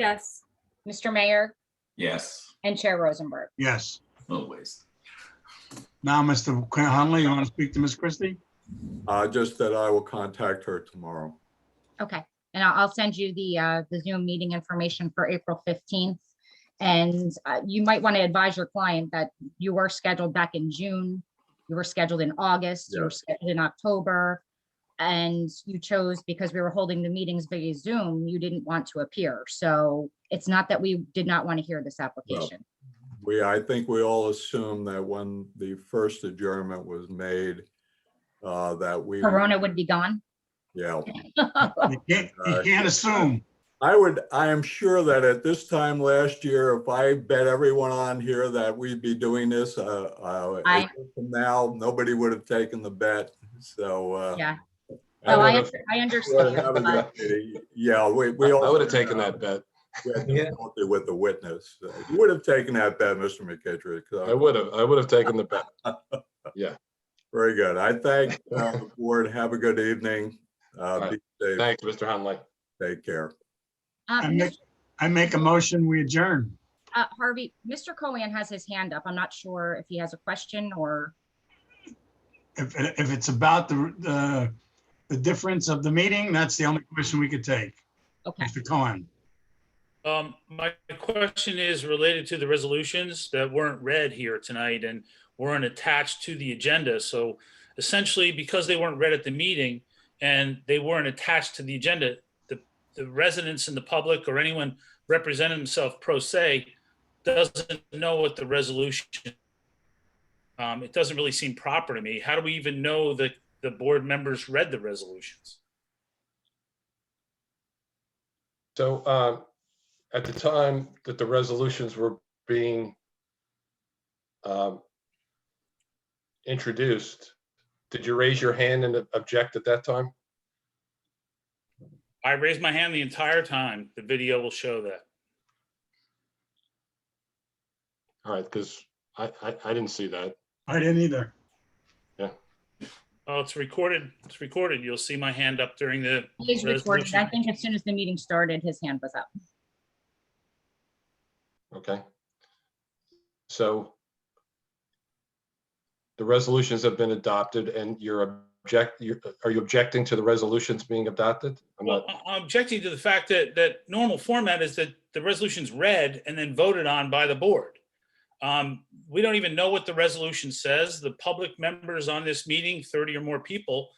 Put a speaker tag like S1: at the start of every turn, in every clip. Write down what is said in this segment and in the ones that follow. S1: Yes.
S2: Mr. Mayor,
S3: Yes,
S2: and Chair Rosenberg.
S4: Yes.
S3: always.
S4: Now, Mr. Hunley, you want to speak to Ms. Christie?
S5: Uh, just that I will contact her tomorrow.
S2: Okay, and I'll, I'll send you the, uh, the Zoom meeting information for April fifteenth. And, uh, you might want to advise your client that you were scheduled back in June, you were scheduled in August, you were scheduled in October. And you chose, because we were holding the meetings via Zoom, you didn't want to appear. So it's not that we did not want to hear this application.
S5: We, I think we all assume that when the first adjournment was made, uh, that we.
S2: Corona would be gone.
S5: Yeah,
S4: You can't, you can't assume.
S5: I would, I am sure that at this time last year, if I bet everyone on here that we'd be doing this, uh, uh,
S2: I-
S5: from now, nobody would have taken the bet, so, uh.
S2: Yeah.
S5: I
S2: So
S5: would
S2: I,
S5: have-
S2: I
S5: would have
S2: understand. but-
S5: had a- Yeah, we, we all.
S6: I would have taken that bet.
S5: We had difficulty With the witness. You would have taken that bet, Mr. McKittrick. so-
S6: I would have, I would have taken the bet.
S5: Very good. I thank uh, the board. Have a good evening. Uh, Be safe.
S6: Thanks, Mr. Hunley.
S5: Take care.
S2: Uh,
S4: I make, I make a motion, we adjourn.
S2: Uh, Harvey, Mr. Cohen has his hand up. I'm not sure if he has a question or,
S4: If, if it's about the, the, the difference of the meeting, that's the only question we could take.
S2: okay.
S4: Mr. Cohen,
S7: Um, my question is related to the resolutions that weren't read here tonight and weren't attached to the agenda. So essentially, because they weren't read at the meeting and they weren't attached to the agenda, the, the residents and the public or anyone representing themselves pro se doesn't know what the resolution. Um, it doesn't really seem proper to me. How do we even know that the board members read the resolutions?
S6: So um, at the time that the resolutions were being um, introduced, did you raise your hand and object at that time?
S7: I raised my hand the entire time. The video will show that.
S6: All right, because I, I, I didn't see that.
S4: I didn't either.
S7: Oh, it's recorded. It's recorded. You'll see my hand up during the,
S2: He is recorded. I
S7: Resolution.
S2: think as soon as the meeting started, his hand was up.
S6: Okay. So the resolutions have been adopted and you're object, you're, are you objecting to the resolutions being adopted? I'm
S7: well,
S6: not,
S7: I- I'm objecting to the fact that, that normal format is that the resolution's read and then voted on by the board. Um, we don't even know what the resolution says. The public members on this meeting, thirty or more people,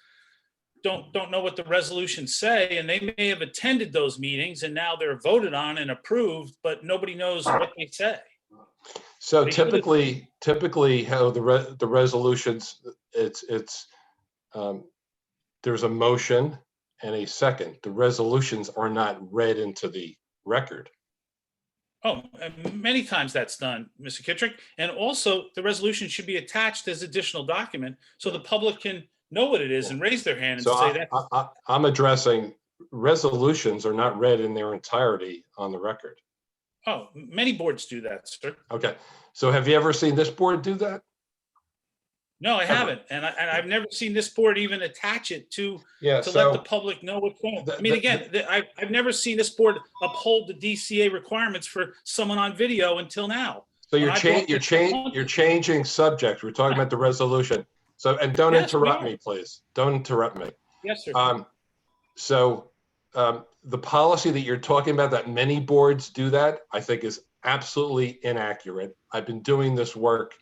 S7: don't, don't know what the resolutions say, and they may have attended those meetings and now they're voted on and approved, but nobody knows what they say.
S6: so
S7: we could have-
S6: typically, typically how the re, the resolutions, it's, it's, um, there's a motion and a second. The resolutions are not read into the record.
S7: Oh, and many times that's done, Mr. Kittrick. And also, the resolution should be attached as additional document so the public can know what it is and raise their hand and
S6: So
S7: say
S6: I,
S7: that.
S6: I, I- I'm addressing, resolutions are not read in their entirety on the record.
S7: Oh, many boards do that, sir.
S6: Okay, so have you ever seen this board do that?
S7: No, I haven't. And I, and I've never seen this board even attach it to,
S6: Yeah,
S7: to let
S6: so,
S7: the public know what's going on. I
S6: The-
S7: mean,
S6: the-
S7: again, the- I, I've never seen this board uphold the DCA requirements for someone on video until now.
S6: so you're
S7: I
S6: changing,
S7: brought
S6: you're
S7: this
S6: changing,
S7: up.
S6: you're changing subjects. We're talking about the resolution. So, and don't
S7: Yes, we
S6: interrupt
S7: are.
S6: me, please. Don't interrupt me.
S7: Yes, sir.
S6: Um, so, um, the policy that you're talking about, that many boards do that, I think is absolutely inaccurate. I've been doing this work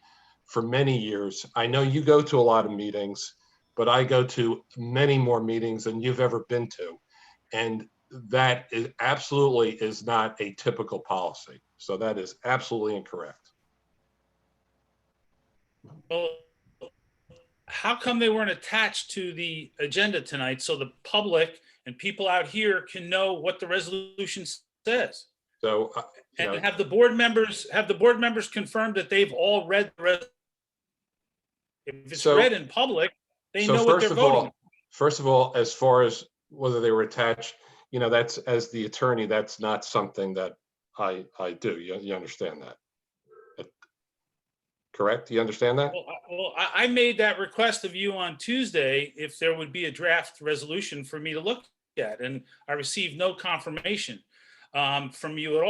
S6: for many years. I know you go to a lot of meetings, but I go to many more meetings than you've ever been to. And that is absolutely is not a typical policy. So that is absolutely incorrect.
S7: Well, how come they weren't attached to the agenda tonight so the public and people out here can know what the resolution says?
S6: So, uh, you
S7: And
S6: know,
S7: have the board members, have the board members confirmed that they've all read the res- if it's
S6: So-
S7: read in public, they
S6: So
S7: know what
S6: first
S7: they're
S6: of all-
S7: voting. on.
S6: First of all, as far as whether they were attached, you know, that's, as the attorney, that's not something that I, I do. You, you understand that? Correct? You understand that?
S7: Well, I- Well, I, I made that request of you on Tuesday, if there would be a draft resolution for me to look at, and I received no confirmation. um, from you at all.